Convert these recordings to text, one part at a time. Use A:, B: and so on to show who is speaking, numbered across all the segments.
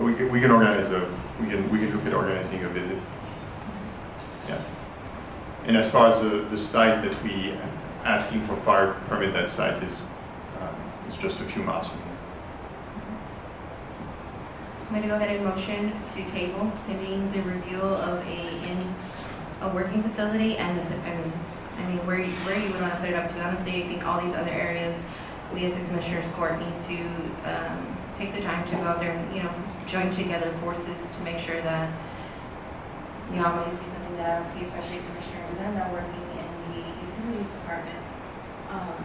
A: We can, we can organize a, we can, we can look at organizing a visit. Yes. And as far as the, the site that we asking for fire permit, that site is, um, is just a few miles from here.
B: I'm going to go ahead and motion to table pending the review of a, in, a working facility and the, I mean, I mean, where, you- where you would want to put it up to. Honestly, I think all these other areas, we as a commissioners court need to, um, take the time to go out there and, you know, join together forces to make sure that you all may see something that I don't see, especially Commissioner Odena working in the utilities department. Um,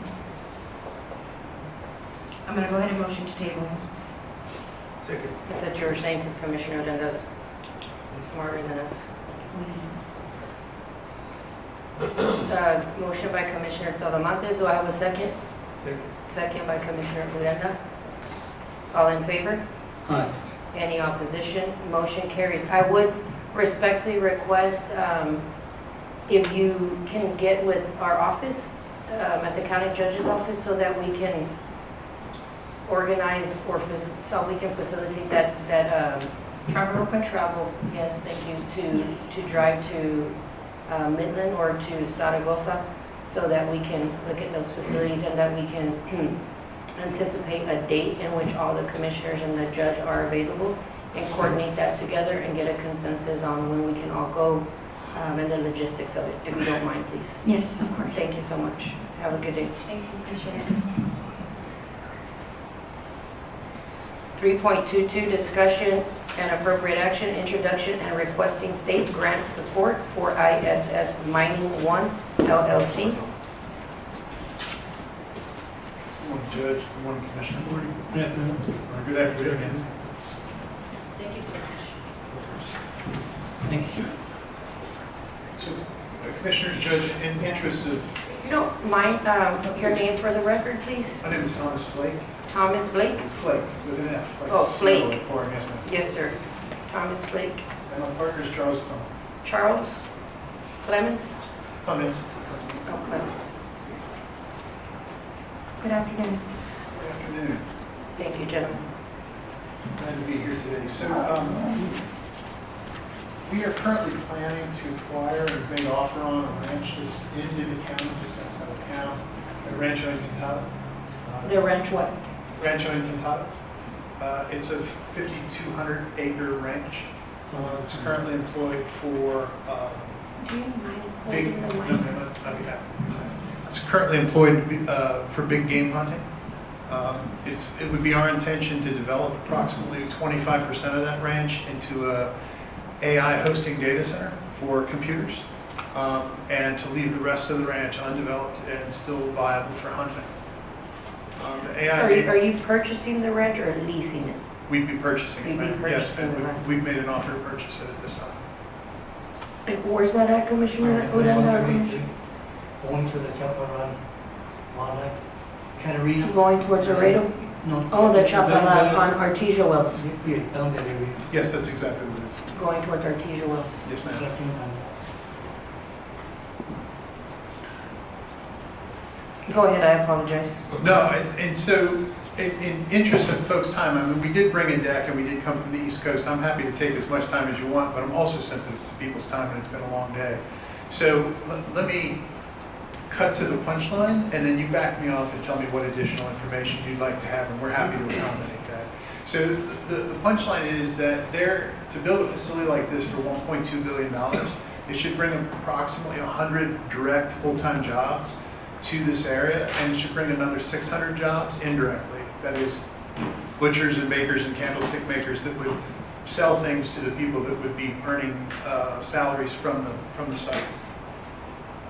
B: I'm going to go ahead and motion to table.
C: Second.
D: If That's your saying, because Commissioner Odena is smarter than us. Uh, Motion by Commissioner Talamantes, do I have a second?
C: Second.
D: Second by Commissioner Odena. All in favor?
C: Aye.
D: Any opposition? Motion carries. I would respectfully request um, if you can get with our office um, at the county judge's office so that we can organize or fa- so we can facilitate that, that um,
B: Trevor, real quick.
D: travel, yes, thank you,
B: Yes.
D: to, to drive to uh, Midland or to Saragossa so that we can look at those facilities and that we can hmm, anticipate a date in which all the commissioners and the judge are available and coordinate that together and get a consensus on when we can all go um, and the logistics of it, if you don't mind, please.
E: Yes, of course.
D: Thank you so much. Have a good day.
B: Thank you, Commissioner.
D: 3.22, discussion and appropriate action, introduction and requesting state grant support for ISS Mining One LLC.
F: Good morning, Judge. Good morning, Commissioner. Good morning. Good afternoon.
B: Thank you so much.
C: Thank you.
F: So, uh, Commissioners, Judge, in the interest of,
D: If you don't mind, um, your name for the record, please?
F: my name is Thomas Flake,
D: Thomas Blake?
F: Flake, with an F. like
D: Oh, Flake.
F: Sewell, Flake, yes, ma'am.
D: Yes, sir. Thomas Blake.
F: And my partner is Charles Clement.
D: Charles? Clement?
F: Clement.
D: Oh, Clement.
B: Good afternoon.
F: Good afternoon.
D: Thank you, gentlemen.
F: Glad to be here today. So, um, we are currently planning to acquire and make offer on a ranch that's in Nivea County, just outside of town, a ranch on Quintana. Uh,
D: The ranch what?
F: Rancho Encantado. Uh, It's a 5,200 acre ranch. Uh, It's currently employed for, um,
D: Do you mind
F: big,
D: holding
F: no,
D: the
F: no,
D: mic?
F: no, I'd be happy. It's currently employed to be, uh, for big game hunting. Um, It's, it would be our intention to develop approximately 25% of that ranch into a AI hosting data center for computers um, and to leave the rest of the ranch undeveloped and still viable for hunting. Um, The AI.
D: Are you,
F: data-
D: are you purchasing the ranch or leasing it?
F: We'd be purchasing it,
D: You'd be
F: ma'am. Yes,
D: purchasing
F: ma'am.
D: the
F: We-
D: land.
F: We've made an offer to purchase it at this time.
D: And Where's that at, Commissioner Odena?
C: Going to the Chaparral Wildlife Catarina.
D: Going towards Laredo?
C: No.
D: Oh, the
C: Better-
D: Chaparral
C: better-
D: on Artesia Wells,
C: Yes, down there, we-
F: Yes, that's exactly what it is.
D: going towards Artesia Wells.
F: Yes, ma'am.
C: Nothing on that.
D: Go ahead, I apologize.
F: No, and and so, in- in interest of folks' time, I mean, we did bring a deck and we did come from the East Coast. I'm happy to take as much time as you want, but I'm also sensitive to people's time and it's been a long day. So le- let me cut to the punchline and then you back me off and tell me what additional information you'd like to have and we're happy to accommodate that. So the, the punchline is that there, to build a facility like this for $1.2 billion, it should bring approximately 100 direct full-time jobs to this area and it should bring another 600 jobs indirectly. That is butchers and bakers and candlestick makers that would sell things to the people that would be earning uh, salaries from the, from the site.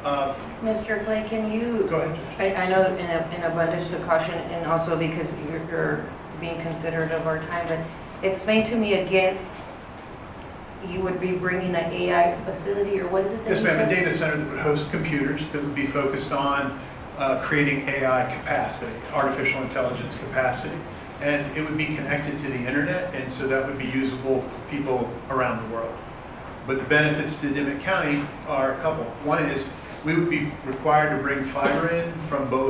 F: Uh,
D: Mr. Flake, can you,
F: Go ahead, Judge.
D: I, I know in a- in abundance of caution and also because you're, you're being considerate of our time, but explain to me again, you would be bringing an AI facility or what is it that you
F: Yes,
D: said?
F: ma'am, a data center that would host computers that would be focused on uh, creating AI capacity, artificial intelligence capacity. And it would be connected to the internet, and so that would be usable for people around the world. But the benefits to Dimmitt County are a couple. One is, we would be required to bring fiber in from both